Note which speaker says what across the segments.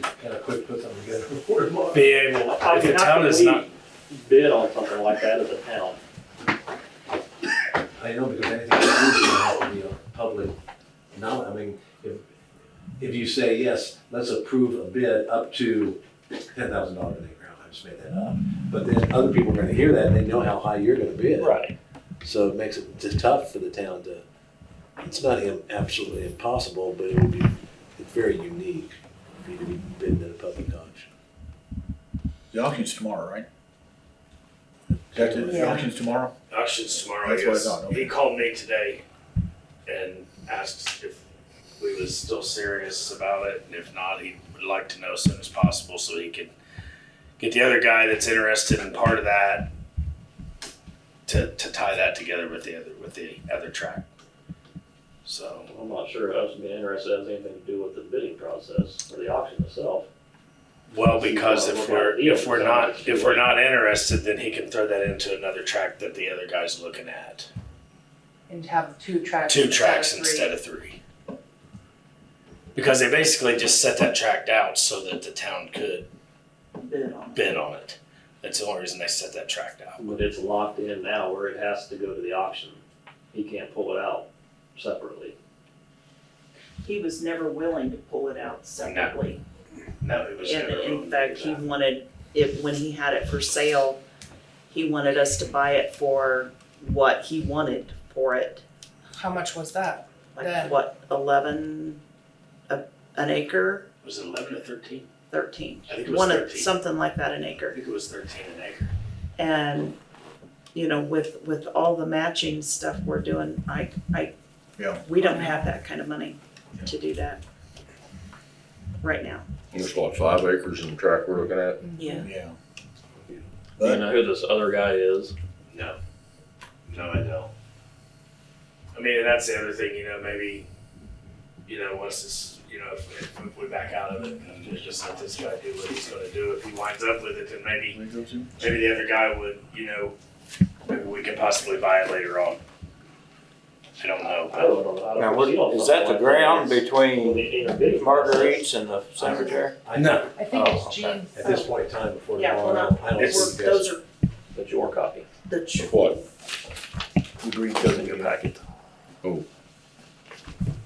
Speaker 1: just kind of quick put something together for tomorrow.
Speaker 2: be able,
Speaker 3: How
Speaker 2: if the
Speaker 3: can,
Speaker 2: town is not,
Speaker 3: bid on something like that as a town?
Speaker 1: I know, because anything you do is gonna have to be a public, no, I mean, if, if you say, yes, let's approve a bid up to ten thousand dollars an acre, I just made that up. But then other people are gonna hear that, and they know how high you're gonna bid.
Speaker 3: Right.
Speaker 1: So it makes it just tough for the town to, it's not im- absolutely impossible, but it would be, it's very unique for you to be bidding at a public auction.
Speaker 4: The auction's tomorrow, right? That's it, the
Speaker 5: Yeah.
Speaker 4: auction's tomorrow?
Speaker 2: auctions tomorrow, I
Speaker 4: That's what I
Speaker 2: guess.
Speaker 4: thought, okay.
Speaker 2: He called me today and asked if we was still serious about it, and if not, he would like to know as soon as possible so he could get the other guy that's interested in part of that to, to tie that together with the other, with the other track. So,
Speaker 3: I'm not sure us being interested has anything to do with the bidding process or the auction itself.
Speaker 2: well, because if we're, if we're not, if we're not interested, then he can throw that into another track that the other guy's looking at.
Speaker 5: And have two tracks.
Speaker 2: two
Speaker 5: instead of
Speaker 2: tracks
Speaker 5: three.
Speaker 2: instead of three. Because they basically just set that track out so that the town could
Speaker 5: Bid on.
Speaker 2: bid on it. That's the only reason they set that track out.
Speaker 3: But it's locked in now where it has to go to the auction. He can't pull it out separately.
Speaker 6: He was never willing to pull it out separately.
Speaker 2: No, it was
Speaker 6: And
Speaker 2: never.
Speaker 6: in fact, he wanted, if, when he had it for sale, he wanted us to buy it for what he wanted for it.
Speaker 5: How much was that? Then.
Speaker 6: Like what, eleven, a, an acre,
Speaker 2: Was it eleven or thirteen?
Speaker 6: thirteen?
Speaker 2: I think it was
Speaker 6: One of-
Speaker 2: 13.
Speaker 6: Something like that, an
Speaker 2: I
Speaker 6: acre.
Speaker 2: think it was thirteen an acre.
Speaker 6: And, you know, with, with all the matching stuff we're doing, I, I,
Speaker 4: Yeah.
Speaker 6: we don't have that kind of money to do that right now.
Speaker 7: There's like five acres in the track we're looking at.
Speaker 6: Yeah.
Speaker 4: Yeah.
Speaker 3: Do you
Speaker 4: But
Speaker 3: know who this other guy is?
Speaker 2: No. No, I don't. I mean, and that's the other thing, you know, maybe, you know, once this, you know, if, if we back out of it and just let this guy do what he's gonna do, if he winds up with it, then maybe
Speaker 4: Where it goes in?
Speaker 2: maybe the other guy would, you know, maybe we could possibly buy it later on. I don't know,
Speaker 3: I
Speaker 2: but
Speaker 3: don't know. I don't
Speaker 8: Now, what-
Speaker 3: know.
Speaker 8: is that the ground
Speaker 3: When
Speaker 8: between
Speaker 3: they do the bidding process,
Speaker 8: Marguerite's and the cemetery?
Speaker 1: I
Speaker 2: no,
Speaker 5: I think
Speaker 8: Oh,
Speaker 5: it's uh,
Speaker 8: okay.
Speaker 5: Gene's.
Speaker 1: At this point in time, before
Speaker 6: Yeah, well,
Speaker 1: tomorrow, I don't
Speaker 2: it's-
Speaker 1: think
Speaker 6: We're-
Speaker 1: that's
Speaker 6: Those are
Speaker 3: That's your copy.
Speaker 6: the. tr-
Speaker 7: What?
Speaker 4: The green goes in
Speaker 3: Your
Speaker 4: your back.
Speaker 3: packet.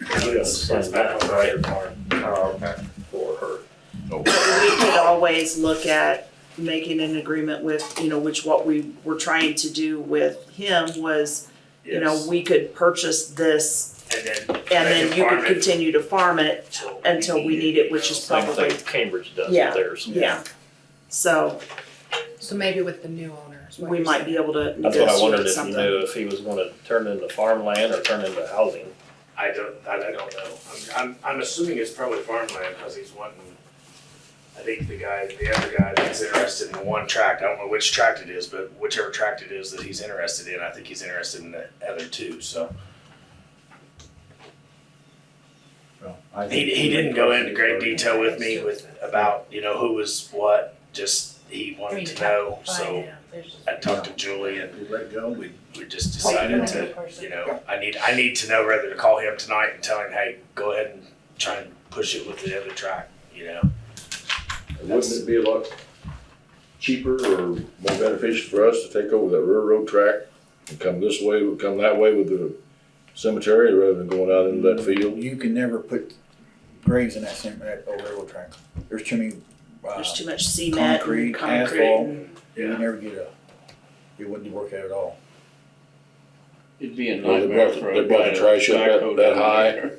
Speaker 2: it's, it's back on the right farm.
Speaker 8: Oh, okay.
Speaker 3: For her.
Speaker 6: we could always look at making an agreement with, you know, which what we were trying to do with him was, you know,
Speaker 2: Yes.
Speaker 6: we could purchase this
Speaker 2: And then.
Speaker 6: and then you could continue to farm it,
Speaker 2: continue
Speaker 6: until we need it, which is
Speaker 3: Same
Speaker 6: Probably.
Speaker 3: thing Cambridge does
Speaker 6: Yeah.
Speaker 3: with theirs.
Speaker 6: yeah. So
Speaker 5: So maybe with the new owner. is what
Speaker 6: we
Speaker 5: you're
Speaker 6: might be
Speaker 5: saying.
Speaker 6: able to
Speaker 3: That's what I wondered
Speaker 6: negotiate
Speaker 3: if you
Speaker 6: something.
Speaker 3: knew if he was gonna turn into farmland or turn into housing.
Speaker 2: I don't, that I don't know. I'm, I'm, I'm assuming it's probably farmland because he's wanting, I think the guy, the other guy that's interested in one tract, I don't know which tract it is, but whichever tract it is that he's interested in, I think he's interested in the other two, so.
Speaker 4: Well, I think-
Speaker 2: He, he didn't go into great detail with me with about you know who was what. Just he
Speaker 5: I mean,
Speaker 2: wanted
Speaker 5: you
Speaker 2: to
Speaker 5: have
Speaker 2: know,
Speaker 5: find
Speaker 2: so
Speaker 5: out. There's-
Speaker 2: I talked to Julie and
Speaker 4: We let go, we,
Speaker 2: we just
Speaker 5: Wait, you
Speaker 2: decided
Speaker 5: have
Speaker 2: to
Speaker 5: a person.
Speaker 2: you know I need I need to know whether to call him tonight and tell him hey go ahead and try and push it with the other track you know
Speaker 7: Wouldn't it be a lot cheaper or more beneficial for us to take over that railroad track and come this way, come that way with the cemetery rather than going out into
Speaker 9: Mm-hmm.
Speaker 7: that field?
Speaker 4: you can never put graves in that same, that old railroad track. There's too many, uh,
Speaker 6: There's too much cement
Speaker 4: concrete,
Speaker 6: and concrete
Speaker 4: asphalt.
Speaker 6: and
Speaker 4: you would never get a, it wouldn't work out at all.
Speaker 9: It'd be a
Speaker 7: Well, they
Speaker 9: nightmare
Speaker 7: brought the-
Speaker 9: for
Speaker 7: they
Speaker 9: a
Speaker 7: brought
Speaker 9: guy
Speaker 7: the trash up that-
Speaker 9: backhoe
Speaker 7: that
Speaker 9: down
Speaker 7: high.
Speaker 9: there.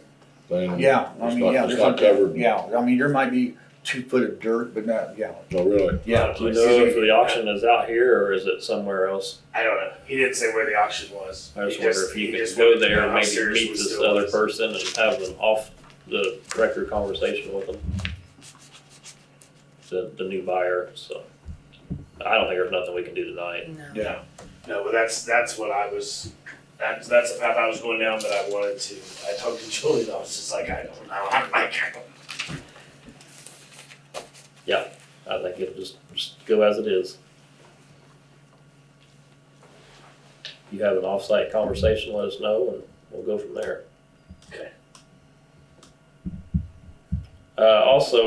Speaker 7: Then
Speaker 4: Yeah, I
Speaker 7: It's
Speaker 4: mean,
Speaker 7: Mm-hmm. not-
Speaker 4: yeah.
Speaker 7: it's
Speaker 4: there's
Speaker 7: not
Speaker 4: something-
Speaker 7: covered.
Speaker 4: Yeah, I mean, there might be two foot of dirt, but not, yeah,
Speaker 7: No, really.
Speaker 4: yeah.
Speaker 3: Do you know if the auction is out here or is it somewhere else?
Speaker 2: I don't know he didn't say where the auction was.
Speaker 3: I just
Speaker 2: He
Speaker 3: wonder if
Speaker 2: he
Speaker 3: you could
Speaker 2: just
Speaker 3: go
Speaker 2: wanted to know
Speaker 3: there and
Speaker 2: how
Speaker 3: maybe
Speaker 2: serious
Speaker 3: meet
Speaker 2: we
Speaker 3: this
Speaker 2: still
Speaker 3: other
Speaker 2: was.
Speaker 3: person and have an off the record conversation with them. The, the new buyer, so. I don't think there's nothing we can do tonight.
Speaker 5: No.
Speaker 4: Yeah.
Speaker 2: No, but that's that's what I was. That's that's the path I was going down, but I wanted to. I talked to Julie, and I was just like, I don't know. I'm like, I don't.
Speaker 3: I think it'll just, just go as it is. You have an off-site conversation, let us know and we'll go from there.
Speaker 2: Okay.
Speaker 3: Uh, also,